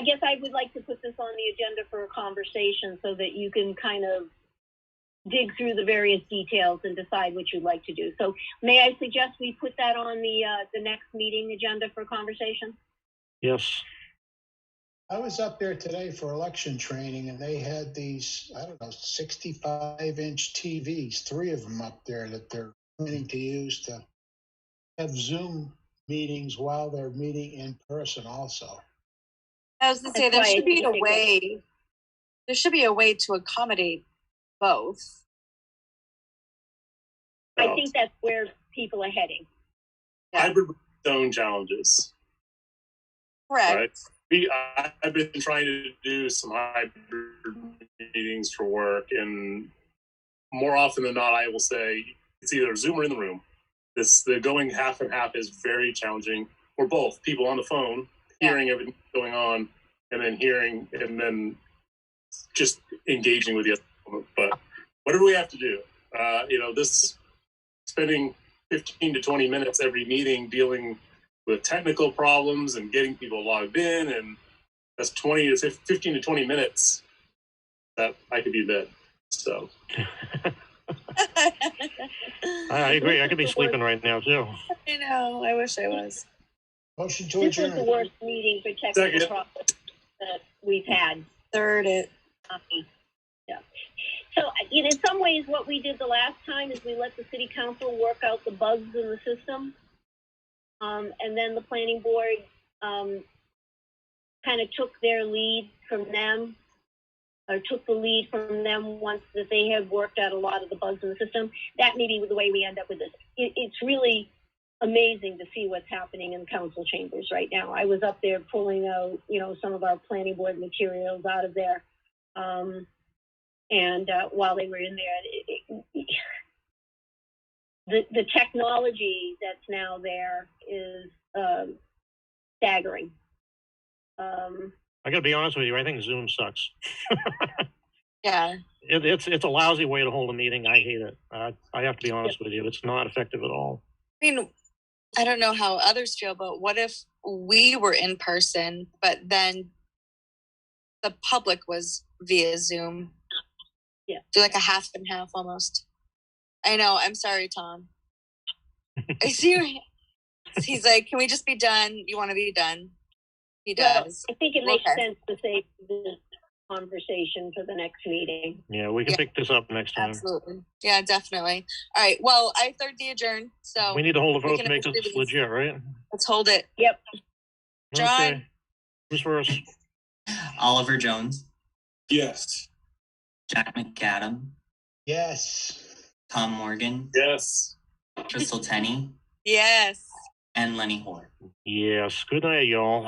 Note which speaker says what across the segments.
Speaker 1: guess I would like to put this on the agenda for a conversation so that you can kind of dig through the various details and decide what you'd like to do. So may I suggest we put that on the, uh, the next meeting agenda for conversation?
Speaker 2: Yes,
Speaker 3: I was up there today for election training and they had these, I don't know, sixty-five inch TVs, three of them up there that they're planning to use to have Zoom meetings while they're meeting in person also.
Speaker 4: I was gonna say
Speaker 1: That's
Speaker 4: there
Speaker 1: why I
Speaker 4: should be
Speaker 1: think
Speaker 4: a
Speaker 1: it was-
Speaker 4: way. There should be a way to accommodate both.
Speaker 1: I
Speaker 5: Oh.
Speaker 1: think that's where people are heading.
Speaker 5: hybrid with its own challenges.
Speaker 4: Correct.
Speaker 5: Right. We, I- I've been trying to do some hybrid meetings for work, and more often than not, I will say it's either Zoom or in the room. This the going half and half is very challenging, or both people on the phone
Speaker 4: Yeah.
Speaker 5: hearing everything going on, and then hearing and then just engaging with the other. But whatever we have to do, uh, you know, this spending fifteen to twenty minutes every meeting dealing with technical problems and getting people logged in and that's 20 to 15 15 to 20 minutes that i could be bed so
Speaker 2: I, I agree. I could be sleeping right now too.
Speaker 4: I know. I wish I was.
Speaker 3: Motion to
Speaker 1: This was the
Speaker 3: adjourn.
Speaker 1: worst meeting for technical
Speaker 5: Second.
Speaker 1: problems that we've had.
Speaker 4: Third it.
Speaker 1: Um, yeah. So I- in in some ways, what we did the last time is we let the city council work out the bugs in the system. Um, and then the planning board, um, kind of took their lead from them or took the lead from them once that they had worked out a lot of the bugs in the system. That may be the way we end up with this. It, it's really amazing to see what's happening in council chambers right now. I was up there pulling out, you know, some of our planning board materials out of there um, and uh, while they were in there, it, it, the the technology that's now there is um, staggering. Um,
Speaker 2: I gotta be honest with you. I think Zoom sucks.
Speaker 4: Yeah.
Speaker 2: It, it's it's a lousy way to hold a meeting. I hate it. Uh, I have to be honest with you. It's not effective at all.
Speaker 4: I mean, I don't know how others feel, but what if we were in person, but then the public was via Zoom?
Speaker 1: Yeah.
Speaker 4: Do like a half and half almost. I know. I'm sorry, Tom. I see. your hand. He's like, can we just be done? You want to be done? He
Speaker 1: Well,
Speaker 4: does.
Speaker 1: I think it makes
Speaker 4: Okay.
Speaker 1: sense to save this conversation for the next meeting.
Speaker 2: Yeah, we can
Speaker 4: Yeah.
Speaker 2: pick this up next time.
Speaker 4: Absolutely. Yeah, definitely. All right. Well, I third the adjourn. So
Speaker 2: We need to hold a
Speaker 4: we
Speaker 2: vote
Speaker 4: can
Speaker 2: to make this
Speaker 4: actually-
Speaker 2: legit, right?
Speaker 4: let's hold it. John.
Speaker 2: Okay. Who's first?
Speaker 6: Oliver Jones,
Speaker 5: yes
Speaker 6: Jack McAdam,
Speaker 3: Yes.
Speaker 6: Tom Morgan,
Speaker 5: yes
Speaker 6: Crystal Tenney,
Speaker 4: Yes.
Speaker 6: and Lenny Hoare.
Speaker 2: Yes. Good night, y'all.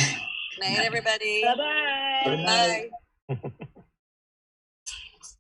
Speaker 4: Night, everybody.
Speaker 1: Bye bye.
Speaker 3: Good night.
Speaker 4: Bye.